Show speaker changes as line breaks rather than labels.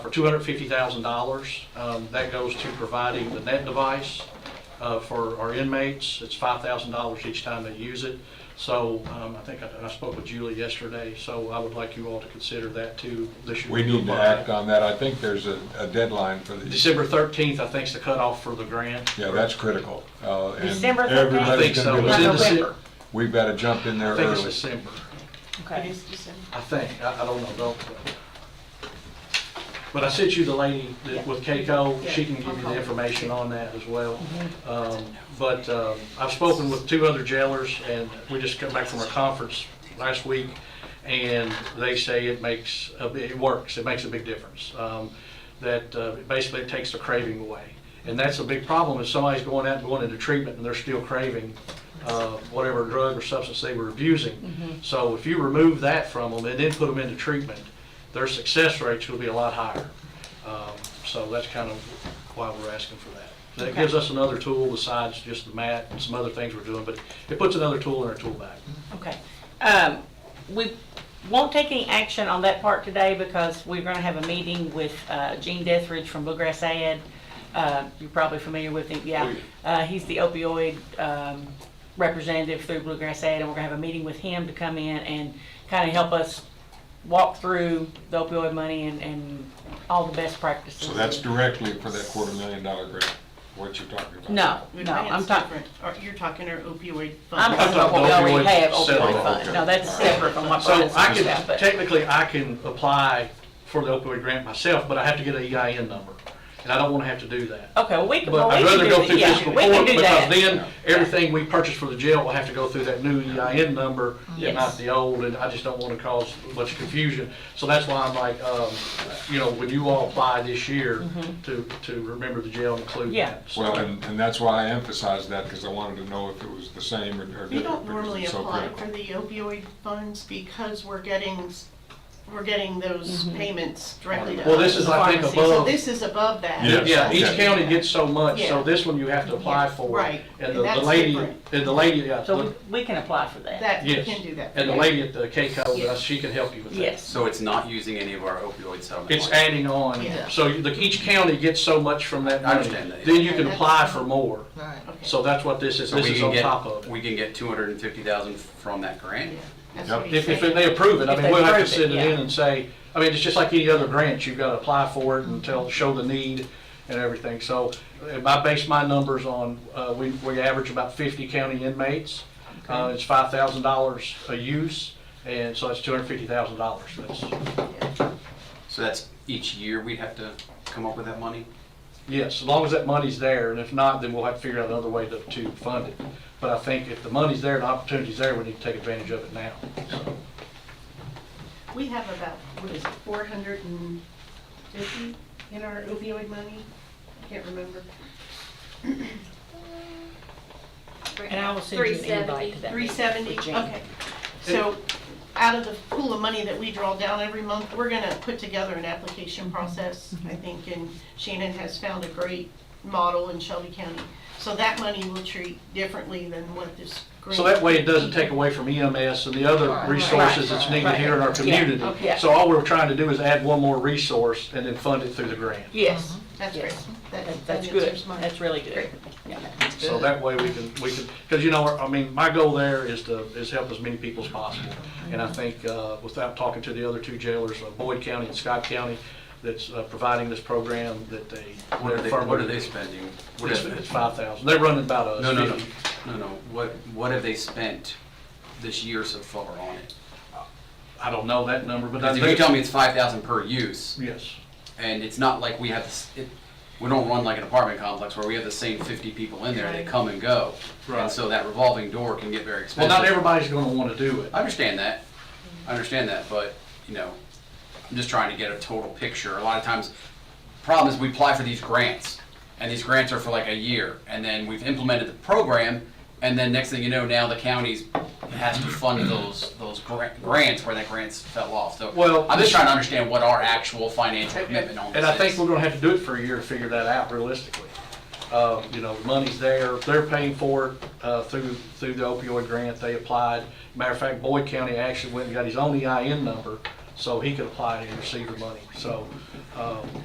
for $250,000. Um, That goes to providing the net device uh, for our inmates. It's $5,000 each time they use it. So um, I think I I spoke with Julie yesterday, so I would like you all to consider that too this year.
We need to act on that. I think there's a, a deadline for the,
December 13th, I think, is the cutoff for the grant.
yeah, that's critical. Uh, and
December
I
13th.
think
everybody's
so.
gonna be
It's in
looking.
December.
We've got to jump in there
I think it's
early.
December.
Okay.
I think, I, I don't know, don't. But I sent you the lady that- with Keiko, she can give you the information on that as well. Um, But, um, I've spoken with two other jailers, and we just come back from a conference last week, and they say it makes, a bi- it works, it makes a big difference. Um, That, uh, basically it takes the craving away. And that's a big problem, if somebody's going out and going into treatment and they're still craving, uh, whatever drug or substance they were abusing. So if you remove that from them and then put them into treatment, their success rates will be a lot higher. Um, So that's kind of why we're asking for that. So That gives us another tool besides just the mat and some other things we're doing, but it puts another tool in our tool bag.
Okay. Um, we won't take any action on that part today because we're gonna have a meeting with, uh, Gene Deathridge from Bluegrass Ad. Uh, you're probably familiar with him, yeah. Uh, he's the opioid, um, representative through Bluegrass Ad, and we're gonna have a meeting with him to come in and kinda help us walk through the opioid money and, and all the best practices.
So that's directly for that quarter million dollar grant, what you're talking about.
No, no, I'm
Grant's
talking,
different. Or You're talking our opioid
I'm
fund.
talking about what we already have, opioid
Settlement,
fund.
okay.
No, Oh, that's separate from what
So
Brian's
I
talking about,
can,
but.
technically, I can apply for the opioid grant myself, but I have to get an EIN number. And I don't want to have to do that.
Okay, well, we can, well,
But I'd
we
rather
can
go
do,
through
that. yeah,
fiscal
we can
court,
do
because
that.
then, everything we purchase for the jail will have to go through that new EIN number,
Yes.
not the old, and I just don't wanna cause much confusion. So that's why I'm like, um, you know, when you all apply this year, to, to remember the jail and include
Mm-hmm. Yeah.
that. So-
Well, and, and that's why I emphasized that, because I wanted to know if it was the same or or different.
We don't
because
normally
it's so
apply
critical.
for the opioid funds because we're getting, s- we're getting those
Mm-hmm.
payments directly to us.
Well, this is, I think,
Pharmacy.
So
above,
this is above that.
Yeah.
yeah, each
Okay.
county gets so much, so
Yeah.
this one you have to apply for.
Right.
And
And
the- the
that's
lady,
different.
and the lady, yeah,
So
the-
we we can apply for that.
That, you
yes.
can do that.
And the lady at the K-CO, uh,
Yes.
she can help you with that.
Yes,
So it's not using any of our opioid settlement?
It's
money?
adding on,
Yeah.
so you- the- each county gets so much from that
I
money.
understand that.
Then you can
Okay,
apply
that's-
for more.
Okay.
So that's what this is,
So
this
we
is
can
on
get-
top of it.
We can get 250,000 from that grant?
Yeah, that's
Yep.
what he's
If, if
saying.
they approve it, I
If
mean,
they
we'll have to
approve it,
send it in
yeah.
and say, I mean, it's just like any other grant, you've got to apply for it and tell, show the need and everything. So if I base my numbers on, uh, we, we average about fifty county inmates. Uh, it's five thousand dollars a use, and so that's two hundred and fifty thousand dollars. That's,
So that's each year we'd have to come up with that money?
Yes, as long as that money's there, and if not, then we'll have to figure out another way to, to fund it. But I think if the money's there, and the opportunity's there, we need to take advantage of it now. So,
We have about, what is it, four hundred and fifty in our opioid money? I Can't remember.
and I will send you an invite to that.
Three seventy,
With Jane.
okay. So out of the pool of money that we draw down every month, we're gonna put together an application
Mm-hmm.
process, I think, and Shannon has found a great model in Shelby County. So that money will treat differently than what this.
So
grant-
that way, it doesn't take away from EMS and the other resources that's needed here in our community.
okay.
So all we're trying to do is add one more resource and then fund it through the grant.
Yes,
That's great.
that-
That- that
Uh-huh. that's good,
answers mine.
that's really good.
So that way we can, we can, because you know, I mean, my goal there is to, is help as many people as possible. And I think, uh, without talking to the other two jailers, uh, Boyd County and Scott County, that's uh, providing this program, that they.
What are they, what are they spending? What
It's,
have-
it's five thousand. They're running about a.
No, no, no, no, no. What, what have they spent this year so far on it?
I don't know that number, but I
Because
think.
if you tell me it's 5,000 per use,
Yes.
and it's not like we have, s- it- we don't run like an apartment complex where we have the same 50 people in there, they come and go.
Right.
And so that revolving door can get very
Well,
expensive.
not everybody's gonna wanna do it.
I understand that. I understand that, but, you know, I'm just trying to get a total picture. A lot of times, problem is we apply for these grants, and these grants are for like a year, and then we've implemented the program, and then next thing you know, now the county's has to fund those, those gra- grants where that grants fell off. So
Well,
I'm just trying to understand what our actual financial commitment on this
And I think
is.
we're gonna have to do it for a year to figure that out realistically. Uh, you know, the money's there, they're paying for it, uh, through, through the opioid grant they applied. Matter of fact, Boyd County actually went and got his own EIN E number, so he could apply and receive the money. So um,